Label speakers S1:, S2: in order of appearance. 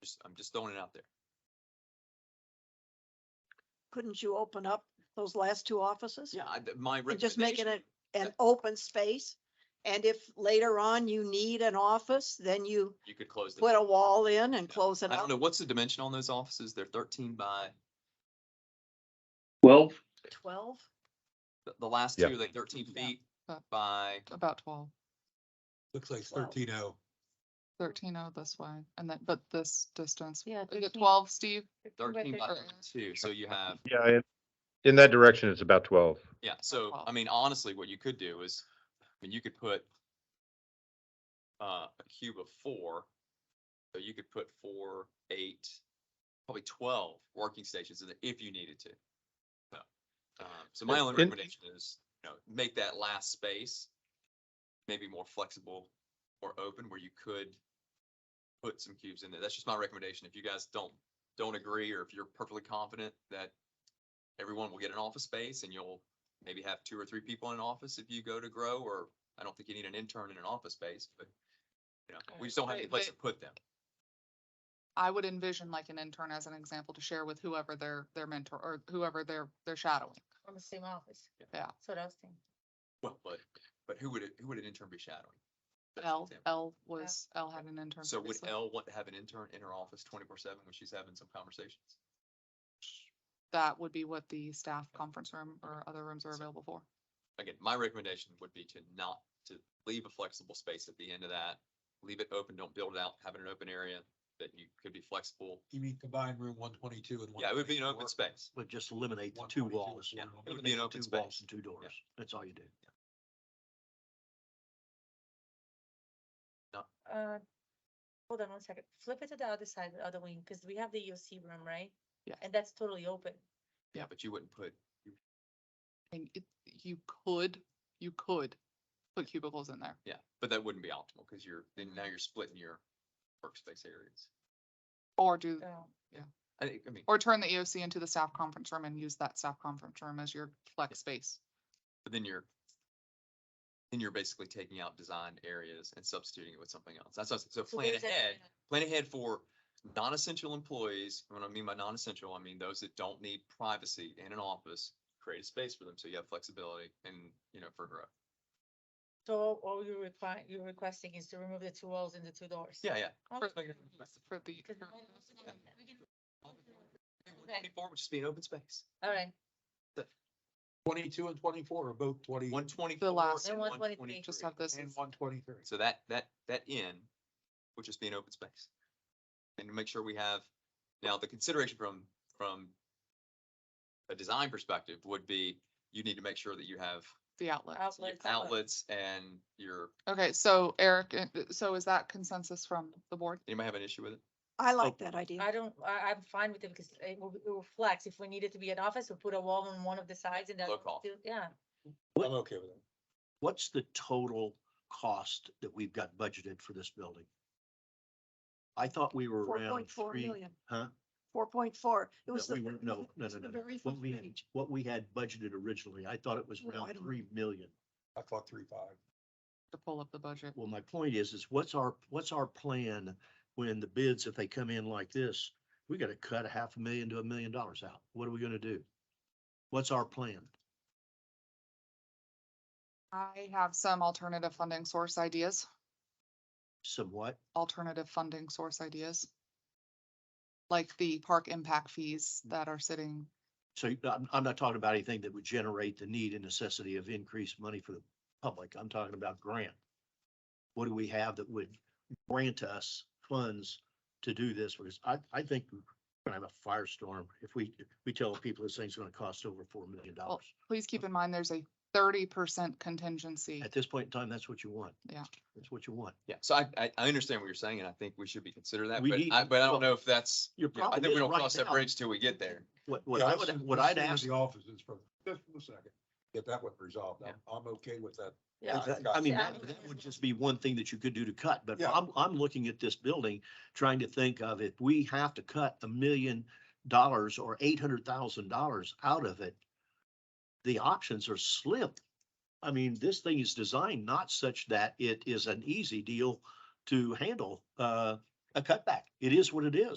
S1: Just, I'm just throwing it out there.
S2: Couldn't you open up those last two offices?
S1: Yeah, I, my
S2: And just make it
S1: recommendation,
S2: a- an open space. And if later on you need an office, then you
S1: you could close
S2: put
S1: the,
S2: a wall in and close it
S1: I don't
S2: up.
S1: know, what's the dimension on those offices? They're thirteen by,
S3: Twelve,
S2: Twelve?
S1: the, the last two,
S3: Yeah.
S1: are like thirteen
S2: Yeah.
S1: feet
S4: Uh.
S1: by,
S4: about twelve,
S5: Looks like
S2: Twelve.
S5: thirteen oh.
S4: thirteen out this way, and then, but this distance,
S6: Yeah.
S4: is it
S6: 13.
S4: twelve, Steve?
S1: thirteen by
S4: thirteen.
S1: two, so you have,
S3: yeah, in- in that direction, it's about twelve.
S1: yeah, so, I
S4: twelve.
S1: mean, honestly, what you could do is, I mean, you could put uh, a cube of four, so you could put four, eight, probably twelve working stations in there if you needed to. So, um, So my only
S3: In-
S1: recommendation is, you know, make that last space maybe more flexible or open where you could put some cubes in there. That's just my recommendation. If you guys don't, don't agree, or if you're perfectly confident that everyone will get an office space and you'll maybe have two or three people in an office if you go to grow, or I don't think you need an intern in an office space, but you know, we just don't have any
S4: Right,
S1: place to
S4: but-
S1: put them.
S4: I would envision like an intern as an example to share with whoever their, their mentor, or whoever they're, they're shadowing.
S6: From the same office.
S1: Yeah.
S6: That's what I was thinking.
S1: Well, but, but who would, it- who would an intern be shadowing? That's an
S4: L,
S1: example.
S4: L was, L had an intern.
S1: So would
S4: previously.
S1: L want to have an intern in her office twenty-four seven when she's having some conversations?
S4: That would be what the staff conference room or other rooms are available for.
S1: again, my recommendation would be to not, to leave a flexible space at the end of that. Leave it open, don't build it out, have it an open area that you could be flexible.
S5: You mean combined room one twenty-two and one?
S1: Yeah, it would be an open space.
S7: But just eliminate the
S5: One
S7: two
S5: twenty-two
S7: walls.
S5: is one
S7: yeah,
S5: room.
S1: It would be
S7: eliminate
S1: an
S7: the
S1: open
S7: two walls
S1: space.
S7: and Two doors. That's all you do.
S6: Uh, Hold on one second. Flip it to the other side, the other wing, because we have the EOC room, right?
S4: Yeah.
S6: And that's totally open.
S1: Yeah, but you wouldn't put,
S4: And it, you could, you could put cubicles in there.
S1: yeah, but that wouldn't be optimal because you're, then now you're splitting your workspace areas.
S4: Or do,
S6: Oh,
S1: I, think- I mean,
S4: or turn the EOC into the staff conference room and use that staff conference room as your flex space.
S1: but then you're, then you're basically taking out design areas and substituting it with something else. That's, what- so
S6: so
S1: plan
S6: there's a-
S1: ahead. plan ahead for non-essential employees. And When I mean by non-essential, I mean those that don't need privacy in an office. Create a space for them so you have flexibility and, you know, for growth.
S6: So all you're requiring, you're requesting is to remove the two walls and the two doors.
S1: Yeah, yeah.
S6: Okay.
S4: For
S1: Just make it-
S4: for the.
S6: Because
S4: for-
S6: the one- we can-
S1: Twenty-four would just be an open space.
S6: All right,
S5: Twenty-two and twenty-four are both twenty.
S1: One twenty-four.
S4: last
S1: and
S6: one. And 123.
S4: Just have this
S5: And
S4: as-
S5: one twenty-three.
S1: So that, that, that in would just be an open space. And to make sure we have, now the consideration from, from a design perspective would be, you need to make sure that you have
S4: the outlet.
S1: your
S6: outlets.
S1: outlets and your,
S4: Okay, so Eric, uh, uh, so is that consensus from the board?
S1: anybody have an issue with it?
S7: Oh,
S2: I like that idea.
S6: I don't, I, I'm fine with it because it will, it will flex. If we needed to be an office, we'll put a wall on one of the sides and then.
S1: Look off.
S6: Yeah,
S5: I'm okay with it.
S7: What's the total cost that we've got budgeted for this building? I thought we were
S2: Four
S7: around
S2: point four
S7: three.
S2: million.
S7: Huh?
S2: Four point four. It
S7: No,
S2: was. the
S7: we weren't, no, no,
S2: it's
S7: no,
S2: the
S7: no, no.
S2: very
S7: What
S2: first
S7: we, had-
S2: page.
S7: what we had budgeted originally, I thought it was
S2: No, I
S7: around
S2: don't know.
S7: three million.
S5: I thought three five.
S4: To pull up the budget.
S7: Well, my point is, is what's our, what's our plan when the bids, if they come in like this, we gotta cut a half a million to a million dollars out. What are we gonna do? What's our plan?
S4: I have some alternative funding source ideas,
S7: Somewhat?
S4: alternative funding source ideas. Like the park impact fees that are sitting,
S7: So you- I'm, I'm not talking about anything that would generate the need and necessity of increased money for the public. I'm talking about grant. What do we have that would grant us funds to do this? Because I, I think we're gonna have a firestorm if we, if we tell people this thing's gonna cost over four million dollars.
S4: please keep in mind, there's a thirty percent contingency.
S7: At this point in time, that's what you want.
S4: Yeah.
S7: That's what you want.
S1: Yeah, so I, I, I understand what you're saying, and I think we should be considering that,
S7: We
S1: but
S7: need-
S1: I, but I don't
S7: well,
S1: know if that's,
S7: your
S1: you know, I
S7: problem
S1: think we
S7: is
S1: don't
S7: right
S1: cross that
S7: now-
S1: bridge till we get there.
S7: What, what
S5: Yeah,
S7: I
S5: let's-
S7: would, what
S5: let's
S7: I'd
S5: see where
S7: ask,
S5: The offices for just for a second, get that one resolved. I'm, I'm okay with that.
S6: yeah.
S7: is that-
S5: I
S7: I mean,
S6: got you.
S7: that, that would just be one thing that you could do to cut, but
S5: Yeah.
S7: I'm, I'm looking at this building, trying to think of if we have to cut a million dollars or eight hundred thousand dollars out of it, the options are slim. I mean, this thing is designed not such that it is an easy deal to handle, uh, a cutback. It is what it is.